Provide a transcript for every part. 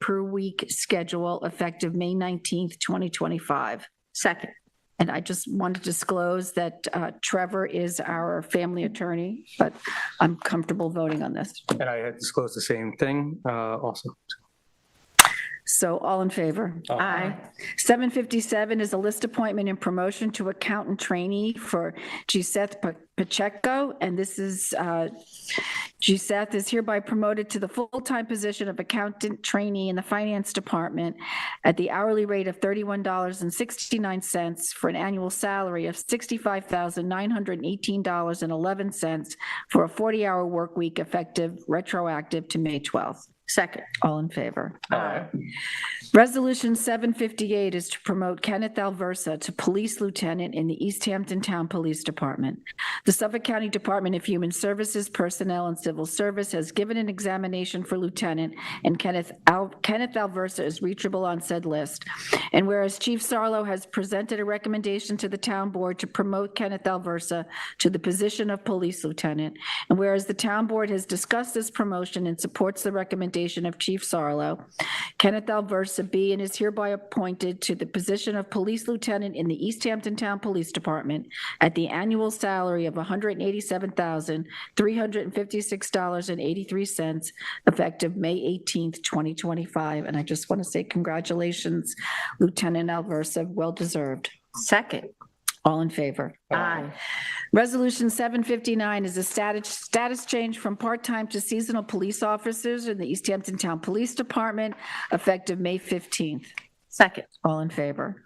per week schedule effective May 19th, 2025. Second. And I just want to disclose that uh, Trevor is our family attorney, but I'm comfortable voting on this. And I had disclosed the same thing uh, also. So all in favor? Aye. 757 is a list appointment and promotion to accountant trainee for Giseth Pa- Pacheco. And this is, uh, Giseth is hereby promoted to the full-time position of accountant trainee in the finance department at the hourly rate of $31.69 for an annual salary of $65,918.11 for a 40-hour work week effective retroactive to May 12th. Second. All in favor? Aye. Resolution 758 is to promote Kenneth Alversa to police lieutenant in the East Hampton Town Police Department. The Suffolk County Department of Human Services, Personnel, and Civil Service has given an examination for lieutenant, and Kenneth Al- Kenneth Alversa is reachable on said list. And whereas Chief Sarlo has presented a recommendation to the town board to promote Kenneth Alversa to the position of police lieutenant, and whereas the town board has discussed this promotion and supports the recommendation of Chief Sarlo, Kenneth Alversa be and is hereby appointed to the position of police lieutenant in the East Hampton Town Police Department at the annual salary of $187,356.83 effective May 18th, 2025. And I just want to say congratulations, Lieutenant Alversa, well deserved. Second. All in favor? Aye. Resolution 759 is a status, status change from part-time to seasonal police officers in the East Hampton Town Police Department effective May 15th. Second. All in favor?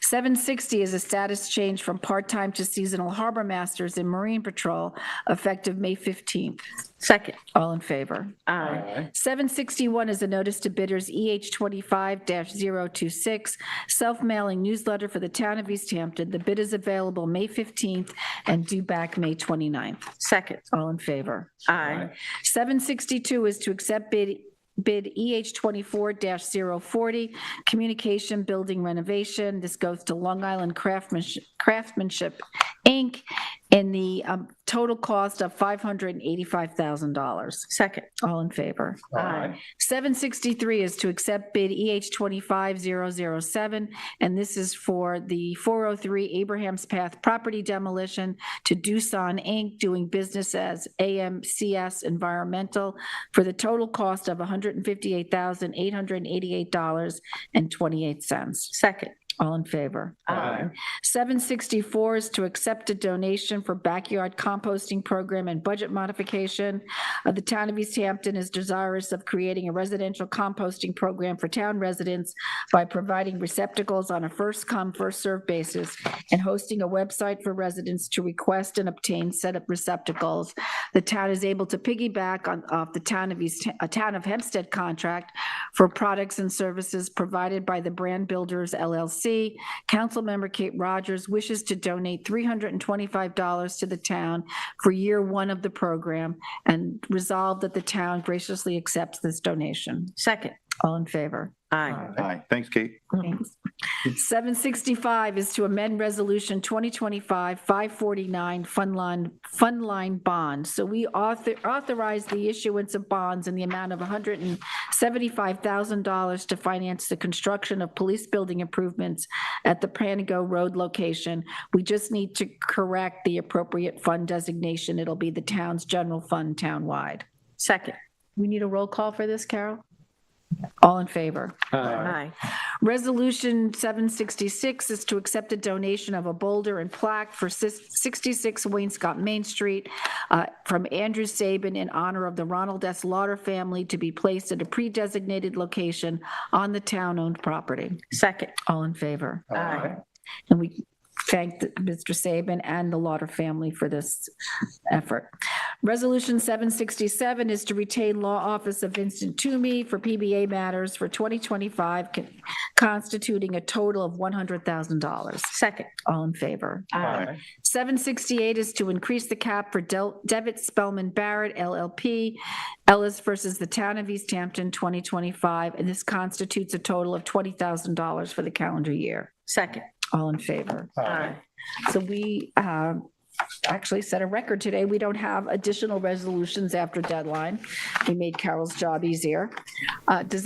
760 is a status change from part-time to seasonal harbor masters in Marine Patrol effective May 15th. Second. All in favor? Aye. 761 is a notice to bidders EH 25-026, self-mailing newsletter for the town of East Hampton. The bid is available May 15th and due back May 29th. Second. All in favor? Aye. 762 is to accept bid, bid EH 24-040, communication building renovation. This goes to Long Island Craftsmanship, Craftsmanship, Inc., in the um, total cost of $585,000. Second. All in favor? Aye. 763 is to accept bid EH 25007, and this is for the 403 Abraham's Path property demolition to Doosan Inc., doing business as AMCS Environmental, for the total cost of $158,888.28. Second. All in favor? 764 is to accept a donation for backyard composting program and budget modification. Uh, The town of East Hampton is desirous of creating a residential composting program for town residents by providing receptacles on a first-come, first-served basis and hosting a website for residents to request and obtain set up receptacles. The town is able to piggyback on, off the town of East, a town of Hempstead contract for products and services provided by the Brand Builders LLC. Councilmember Kate Rogers wishes to donate $325 to the town for year one of the program and resolve that the town graciously accepts this donation. Second. All in favor? Aye. Aye. Thanks, Kate. Thanks. 765 is to amend Resolution 2025-549 Fund Line, Fund Line Bond. So we author authorize the issuance of bonds in the amount of $175,000 to finance the construction of police building improvements at the Pranigo Road location. We just need to correct the appropriate fund designation. It'll be the town's general fund townwide. Second. We need a roll call for this, Carol? All in favor? Aye. Resolution 766 is to accept a donation of a boulder and plaque for sis- 66 Wainscott Main Street uh, from Andrew Saban in honor of the Ronald S. Lauder family to be placed at a pre-designated location on the town-owned property. Second. All in favor? Aye. And we thank the- Mr. Saban and the Lauder family for this effort. Resolution 767 is to retain law office of Vincent Toomey for PBA matters for 2025, con- constituting a total of $100,000. Second. All in favor? Aye. 768 is to increase the cap for Del- Devitt Spellman Barrett LLP, Ellis versus the Town of East Hampton, 2025, and this constitutes a total of $20,000 for the calendar year. Second. All in favor? Aye. So we um, actually set a record today. We don't have additional resolutions after deadline. We made Carol's job easier. Uh, Does